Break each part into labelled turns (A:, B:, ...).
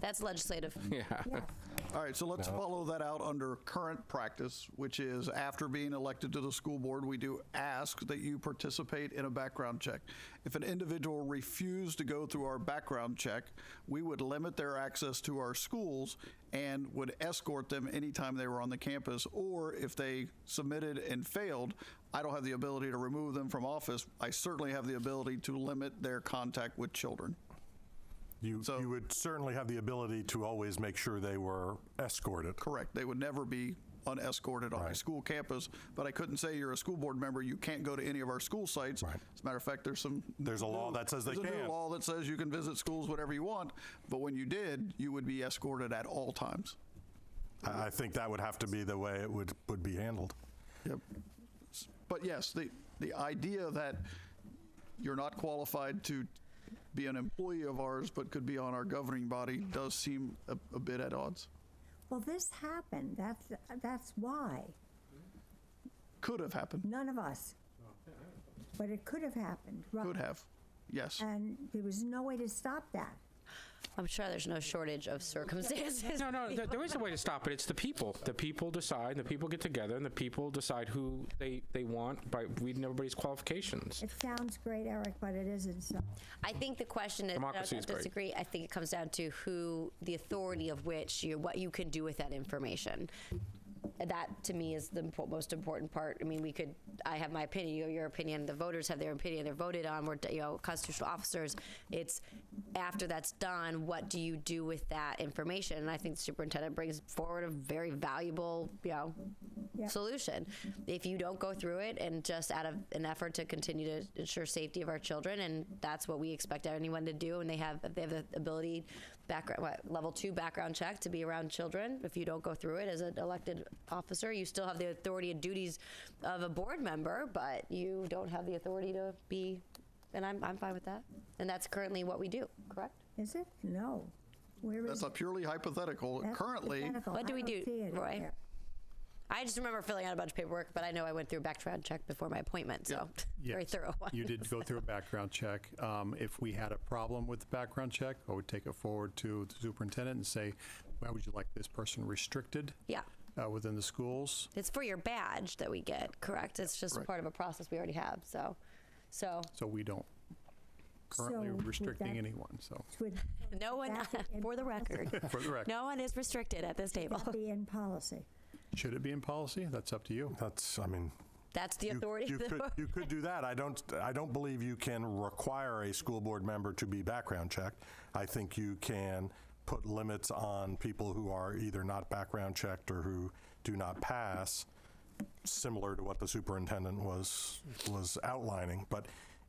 A: That's legislative.
B: All right, so let's follow that out under current practice, which is after being elected to the school board, we do ask that you participate in a background check. If an individual refused to go through our background check, we would limit their access to our schools and would escort them anytime they were on the campus, or if they submitted and failed, I don't have the ability to remove them from office. I certainly have the ability to limit their contact with children.
C: You,
B: So-
C: you would certainly have the ability to always make sure they were escorted.
B: Correct. They would never be unescorted on a
C: Right.
B: school campus, but I couldn't say you're a school board member, you can't go to any of our school sites.
C: Right.
B: As a matter of fact, there's some.
C: There's a law that says they
B: There's a new
C: can.
B: law that says you can visit schools whatever you want, but when you did, you would be escorted at all times.
C: I I think that would have to be the way it would, would be handled.
B: Yep. S- But yes, the, the idea that you're not qualified to be an employee of ours, but could be on our governing body does seem a, a bit at odds.
D: Well, this happened. That's, that's why.
B: Could have happened,
D: None of us. But it could have happened. Right.
B: could have, yes.
D: And there was no way to stop that.
A: I'm sure there's no shortage of circumstances.
E: No, no, th- there is a way to stop it. It's the people. The people decide, the people get together, and the people decide who they, they want by reading everybody's qualifications.
D: It sounds great, Eric, but it isn't so.
A: I think the question is, I
E: Democracy is
A: don't
E: great.
A: disagree. I think it comes down to who, the authority of which, you, what you can do with that information. That to me is the impo- most important part. I mean, we could, I have my opinion, you have your opinion, the voters have their opinion, they're voted on, we're, you know, constitutional officers. It's after that's done, what do you do with that information? And I think the superintendent brings forward a very valuable, you know,
D: Yeah.
A: solution. If you don't go through it and just out of an effort to continue to ensure safety of our children, and that's what we expect anyone to do, and they have they have the ability, background what, level two background check to be around children. If you don't go through it as an elected officer, you still have the authority and duties of a board member, but you don't have the authority to be. And I'm I'm fine with that. And that's currently what we do, correct?
D: Is it? No. Where is
B: That's a
D: it?
B: purely hypothetical.
D: That's
B: Currently,
D: hypothetical.
A: What do
D: I
A: we do,
D: don't see it in
A: Roy?
D: there.
A: I just remember filling out a bunch of paperwork, but I know I went through a background check before my appointment, so very
F: Yes,
A: thorough one.
F: You did go through a background check. Um, If we had a problem with the background check, I would take it forward to the superintendent and say, why would you like this person restricted?
A: Yeah.
F: uh, Within the schools?
A: It's for your badge that we get, correct? It's just part of a process we already have. So, so
F: So we don't currently
D: So would
F: restricting
D: that-
F: anyone, so.
D: Would
A: no one,
D: That would
A: for the record,
F: For the record,
A: no one is restricted at this table.
D: that be in policy?
F: should it be in policy? That's up to you.
C: That's, I mean,
A: That's the
C: you-
A: authority.
C: You
A: of the
C: could,
A: board.
C: you could do that. I don't, I don't believe you can require a school board member to be background checked. I think you can put limits on people who are either not background checked or who do not pass, similar to what the superintendent was, was outlining. But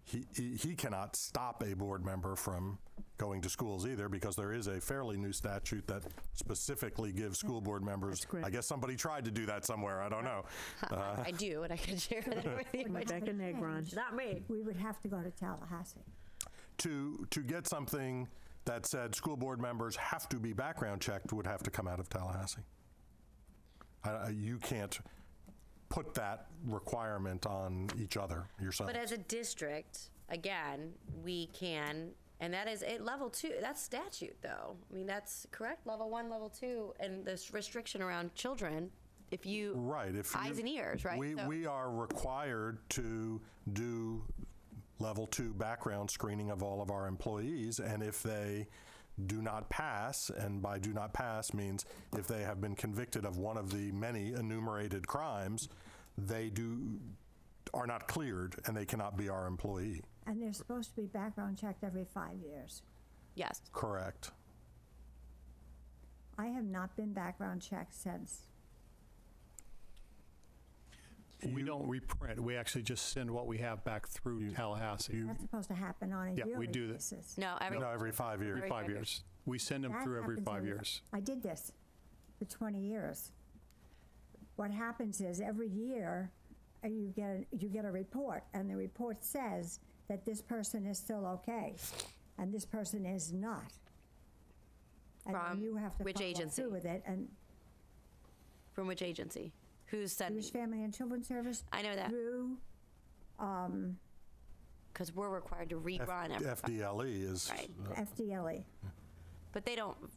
C: he, he he cannot stop a board member from going to schools either, because there is a fairly new statute that specifically gives school board members, I guess somebody tried to do that somewhere, I don't know.
A: I do, and I can share that with you.
G: My back and egg, Ron.
A: Not me.
C: Oh.
D: We would have to go to Tallahassee.
C: to to get something that said school board members have to be background checked would have to come out of Tallahassee. I- I- you can't put that requirement on each other yourself.
A: But as a district, again, we can, and that is at level two. That's statute, though. I mean, that's correct. Level one, level two, and this restriction around children. If you
C: right. If
A: eyes
C: you-
A: and ears, right?
C: We
A: So-
C: we are required to do level two background screening of all of our employees, and if they do not pass, and by do not pass means if they have been convicted of one of the many enumerated crimes, they do are not cleared and they cannot be our employee.
D: And they're supposed to be background checked every five years.
A: yes,
C: Correct.
D: I have not been background checked since.
F: We don't reprint, we actually just send what we have back through Tallahassee.
D: That's supposed to happen on a
F: Yeah,
D: yearly
F: we
D: basis.
F: do that.
A: no, every
C: no, every five years.
F: Every five years. We send them
D: That
F: through every
D: happens
F: five years.
D: I did this for 20 years. What happens is every year uh, you get a, you get a report, and the report says that this person is still okay, and this person is not. And then
A: From
D: you have to
A: which
D: follow
A: agency?
D: through with it. And
A: from which agency? Who said?
D: Jewish Family and Children's Service
A: I know that.
D: through
A: because we're required to
C: F-
A: rerun every.
C: FDLE is
A: Right.
D: FDLE.
A: But they don't